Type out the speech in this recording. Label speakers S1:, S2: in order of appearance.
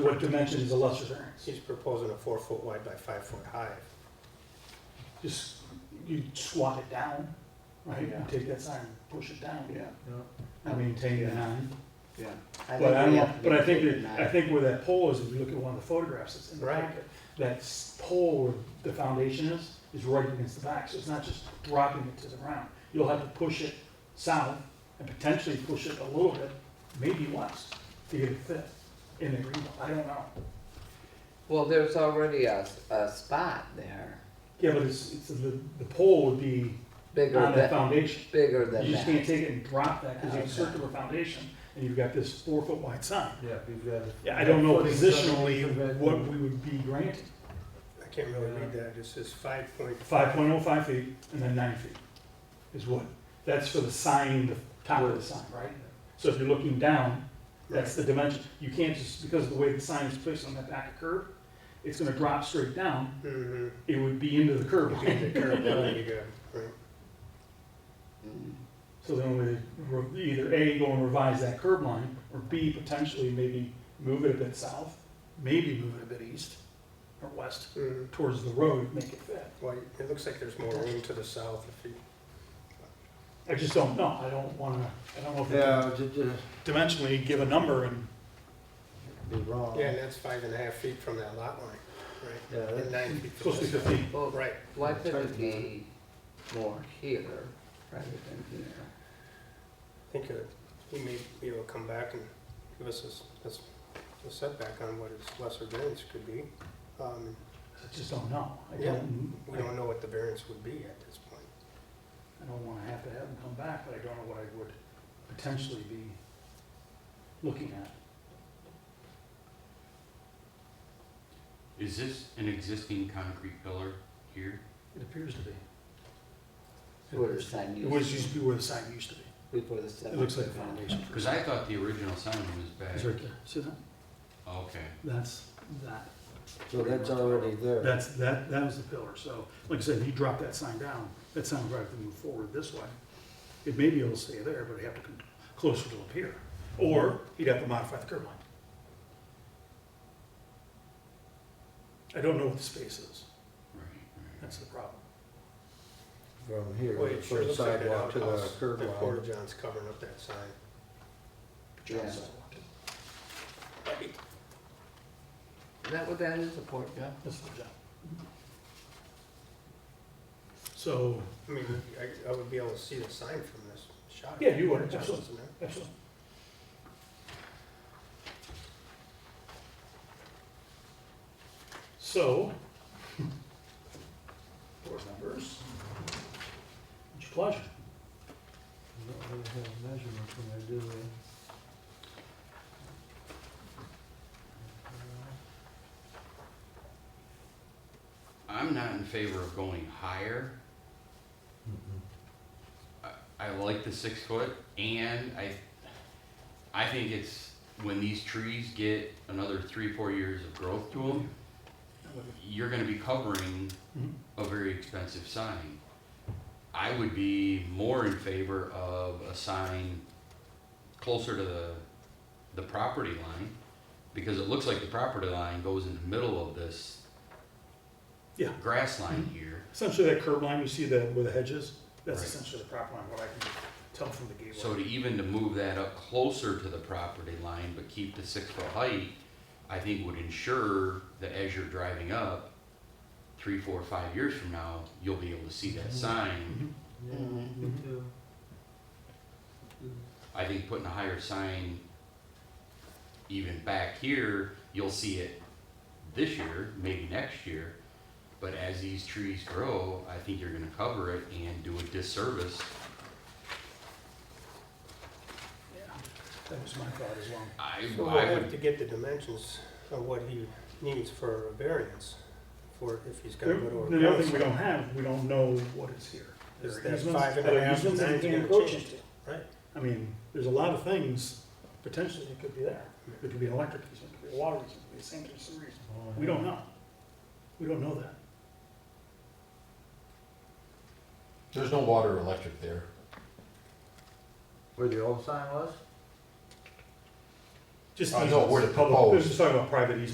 S1: what dimension is the lesser variance?
S2: He's proposing a four foot wide by five foot high.
S1: Just, you squat it down, right? You
S3: Yeah.
S1: Take that sign, and push it down.
S3: Yeah,
S1: I maintain the
S3: Yeah.
S1: nine.
S3: yeah.
S1: But I
S3: we
S1: don't, know-
S3: have to
S1: but I think,
S3: maintain
S1: that- I
S3: that.
S1: think where that pole is, if you look at one of the photographs that's in the
S2: Right.
S1: packet, that s- pole where the foundation is, is right against the back, so it's not just dropping it to the ground. You'll have to push it south and potentially push it a little bit, maybe west, to get it fit in the green belt. I don't know.
S4: Well, there's already a, a spot there,
S1: Yeah, but it's, it's, the, the pole would be
S4: bigger
S1: on that
S4: than,
S1: foundation.
S4: bigger than
S1: You just can't
S4: that.
S1: take it and drop that, because you have a
S4: Okay.
S1: circular foundation, and you've got this four-foot wide sign.
S5: Yeah, we've got.
S1: Yeah, I don't know
S5: Footing, so
S1: positionally
S5: we've got-
S1: what we would be granted.
S2: I can't really read that, it just says five point.
S1: Five point oh five feet and then nine feet is what, that's for the sign, the top of the sign, right? So if you're looking down, that's the dimension. You can't just, because of the way the sign is placed on that back curve, it's gonna drop straight down.
S2: Mm-hmm.
S1: It would be into the curb line.
S2: The curve, there you go, right.
S4: Mm.
S1: So then we re- either A, go and revise that curb line, or B, potentially maybe move it a bit south, maybe move it a bit east or west
S2: Mhm.
S1: towards the road, make it fit.
S2: Well, it looks like there's more room to the south if you,
S1: I just don't know. I don't wanna, I don't know if we can
S5: Yeah, just,
S1: dimensionally give a number and
S5: be wrong.
S2: yeah, and that's five and a half feet from that lot line, right?
S5: Yeah,
S2: And
S5: that's-
S2: nine feet. from
S1: Supposed to be
S2: the south.
S1: fifteen.
S4: Well,
S2: Right,
S4: why
S5: That's
S4: couldn't it
S5: right.
S4: be more here rather than here?
S2: I think uh, we may be able to come back and give us a s- a s- a setback on what his lesser variance could be. Um,
S1: I just don't know. I
S2: Yeah.
S1: don't,
S2: We
S1: I
S2: don't know what the variance would be at this point.
S1: I don't wanna have to have them come back, but I don't know what I would potentially be looking at.
S6: Is this an existing concrete pillar here?
S1: It appears to be.
S4: Where the sign
S1: It
S4: used
S1: was
S4: to
S1: used to be where the sign used to be.
S4: be before the seven.
S1: It looks like a foundation.
S6: Because I thought the original sign was
S1: It's
S6: back.
S1: right there. See that?
S6: Okay.
S1: That's that.
S5: So that's already there.
S1: That's, that, that was the pillar. So, like I said, you drop that sign down, that sign would have to move forward this way. It may be able to stay there, but it'd have to come closer to up here. Or he'd have to modify the curb line. I don't know what the space is.
S6: Right, right.
S1: That's the problem.
S5: From here,
S2: Well, it sure
S5: from
S2: looks like that
S5: sidewalk to the
S2: outhouse,
S5: curb
S2: that
S5: line.
S2: Porta John's covering up that sign.
S4: Yeah.
S1: Is
S4: Is that what that is, a port gun?
S1: That's the job. So,
S2: I mean, I, I would be able to see the sign from this shot.
S1: Yeah, you would,
S2: Just
S1: absolutely.
S2: isn't it?
S1: absolutely. So, board members, it's your pleasure.
S5: We don't really have measurements in there, do we?
S6: I'm not in favor of going higher. I- I like the six foot and I, I think it's when these trees get another three, four years of growth to them, you're gonna be covering
S1: Mhm.
S6: a very expensive sign. I would be more in favor of a sign closer to the, the property line, because it looks like the property line goes in the middle of this
S1: Yeah.
S6: grass line here.
S1: Essentially, that curb line, you see that where the hedge is, that's
S6: Right.
S1: essentially the property line, what I can tell from the gateway.
S6: So to even to move that up closer to the property line, but keep the six foot height, I think would ensure that as you're driving up, three, four, five years from now, you'll be able to see that
S1: Mm-hmm.
S6: sign.
S5: Yeah,
S4: Mhm.
S5: me too.
S6: I think putting a higher sign even back here, you'll see it this year, maybe next year. But as these trees grow, I think you're gonna cover it and do a disservice.
S1: Yeah, That was my thought as well.
S6: I,
S2: So we'll
S6: I would
S2: have to get the dimensions of what he needs for a variance, for if he's gonna go to a.
S1: The other thing we
S2: variance.
S1: don't have, we don't know what is here.
S2: Is
S1: There are
S2: that
S1: easements-
S2: five and
S1: there
S2: a
S1: are
S2: half,
S1: easements that you
S2: nine's
S1: can't
S2: gonna
S1: encroach
S2: change.
S1: into.
S2: Right.
S1: I mean, there's a lot of things, potentially, that could be there. It could be an electric easement, it could be a water easement, it could be a sanitary sewer easement.
S5: Oh,
S1: We don't know. We don't know that.
S7: There's no water or electric there.
S5: Where the old sign was?
S1: Just
S7: I know
S1: easements,
S7: where to
S1: public-
S7: propose.
S1: We're just talking about private easements.